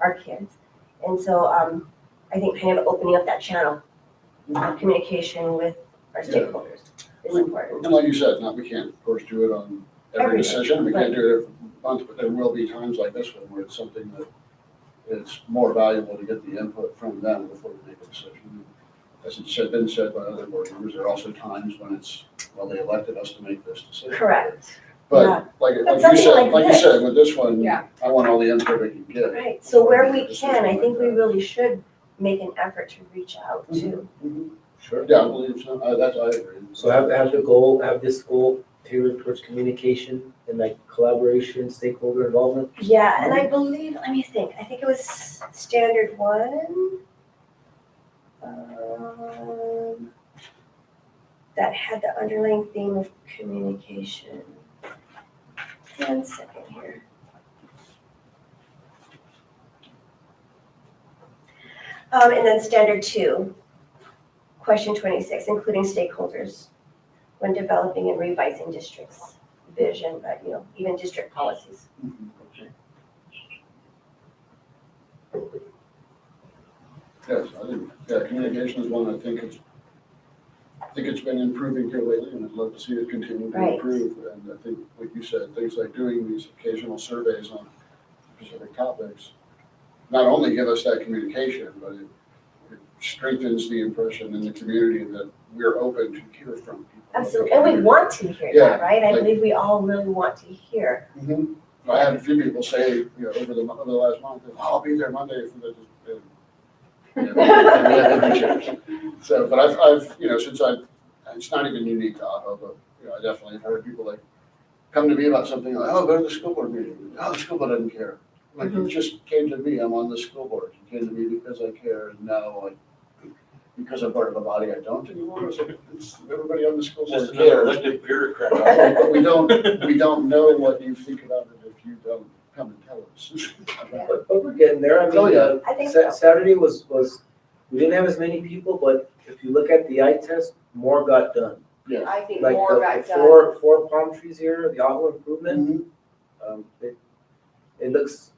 our kids. And so, um, I think kind of opening up that channel of communication with our Yeah. stakeholders is important. And like you said, not, we can't, of course, do it on every Every- decision, we can't do it every month, but there will be times like this one where it's something that it's more valuable to get the input from them before we make a decision. As it's said, been said by other board members, there are also times when it's, well, they elected us to make this decision. Correct, Yeah. But like, But like you something said, like like you this. said, with this one, Yeah. I want all the input we can get. right. So where we can, I think we really should make an effort to reach out Mm-hmm. to. Sure. Yeah, I believe so, I, that's, I agree. So have, have the goal, have this goal tailored towards communication and like collaboration, stakeholder involvement? Yeah, and I believe, let me think, I think it was standard one. um, That had the underlying theme of communication. One second here. Um, and then standard two, question twenty-six, including stakeholders when developing and revising districts' vision, but, you know, even district policies. Yes, I think, yeah, communication is one I think it's, I think it's been improving here lately and I'd love to see it continue to Right. improve. And I think, like you said, things like doing these occasional surveys on specific topics, not only give us that communication, but it it strengthens the impression in the community that we're open to hear from people. Absolutely, and we want to hear that, Yeah, right? I like- believe we all really want to hear. Mhm. I had a few people say, you know, over the, mo- over the last month, "Oh, I'll be there Monday for the. and- and- So, but I've, I've, you know, since I, it's not even unique to Otto, but, you know, I definitely have heard people like, come to me about something, like, oh, go to the school board meeting, oh, the school board doesn't care. Like, you just came to me, I'm on the school board, you came to me because I care, and now I, because I'm part of a body I don't anymore, it's, like, it's- everybody on the school board Just another cares. elected bureaucrat. But we don't, we don't know what you think about it if you don't come and tell us. But, but we're getting there. I Oh, mean, yeah. uh, I think so. Sa- Saturday was, was, we didn't have as many people, but if you look at the eye test, more got done. I think Like more the- got the done. Four, four palm trees here, the Aho improvement, Mm-hmm. um, it, it looks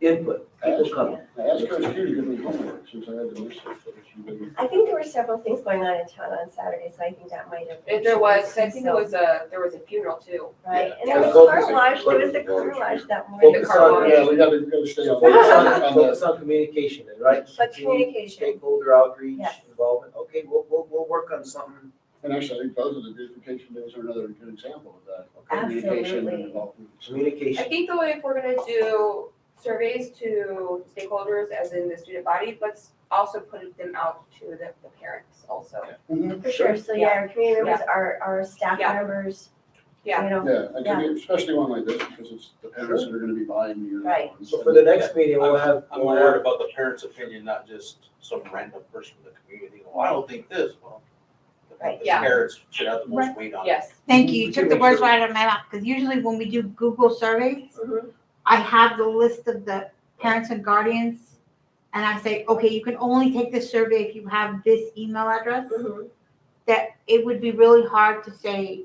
input, people coming. I asked Coach Q to give me homework since I had to miss it, but she didn't. I think there were several things going on in town on Saturday, so I think that might have. If there was, I think there was a, there was a funeral too. Right, and Yeah, there was car focus on- wash, there was the car focus on- wash that morning. The Focus car on, wash. Yeah, we gotta, we gotta stay so on. focus on, on focus the- on communication, then, right? But Continue communication, Stakeholder outreach, Yes. involvement, okay, we'll, we'll, we'll work on something. And actually, I think both of the beautification days are another good example of that. Communication and Absolutely. involvement. I Communication, think though, if we're gonna do surveys to stakeholders, as in the student body, let's also put them out to the, the parents also. Mm-hmm. Mm-hmm. for sure, so yeah, our community members, our, our staff Yeah. members, you Yeah. know, Yeah, and commu- especially one like this, because it's the parents that are gonna be buying the Right. uniforms. so for the next meeting, we'll have, I'm we'll more have, worried about the parent's opinion, not just some random person in the community. Well, I don't think this, well. the- Right, the yeah. Parents should have the most weight on it. Yes. Thank you, We you can took the make words sure- right out of my mouth, because usually when we do Google surveys, Mm-hmm. Mhm. I have the list of the parents and guardians, and I say, okay, you can only take this survey if you have this email address, Mm-hmm. Mhm. that it would be really hard to say,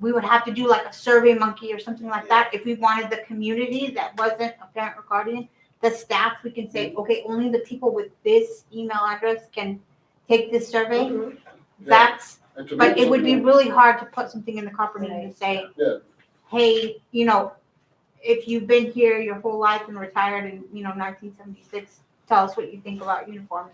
we would have to do like a survey monkey or something like that, if we wanted the community that wasn't a parent or guardian, the staff, we can Mm-hmm. say, okay, only the people with this email address can take this survey, Mhm. Mm-hmm. Yeah, that's and to but me, it would be something- really hard to put something in the company and say, Yeah. hey, you know, if you've been here your whole life and retired in, you know, 1976, tell us what you think about uniforms.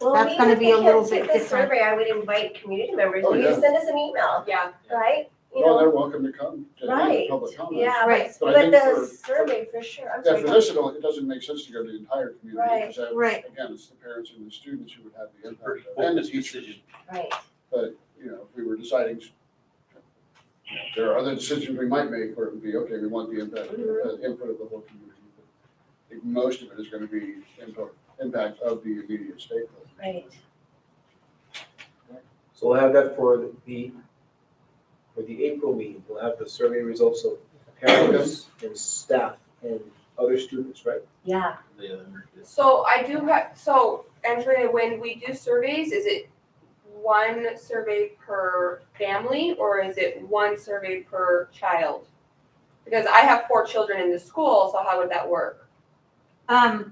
Well, That's maybe gonna if be we a can't little take bit this different. Survey, I would invite community members, Oh, you yeah. send us an email, Yeah, right? You Well, know, they're welcome to come to right, any public comments. yeah, Right. but, But I but think the for- survey for sure, I'm Yeah, sorry. for this, it don't- it doesn't make sense to go to the entire community, because that, Right. again, it's the parents and the students who would have the Pretty impact. of it, And the focused teachers, decision. Right, but, you know, if we were deciding, you know, there are other decisions we might make where it would be, okay, we want the impact, the Mm-hmm. input of the whole community. but I think most of it is gonna be input, impact of the immediate stakeholder. right. so we'll have that for the, for the April meeting, we'll have the survey results of parents and staff and other students, right? Yeah, The other- so I do have, so Angelina, when we do surveys, is it one survey per family or is it one survey per child? Because I have four children in the school, so how would that work? Um,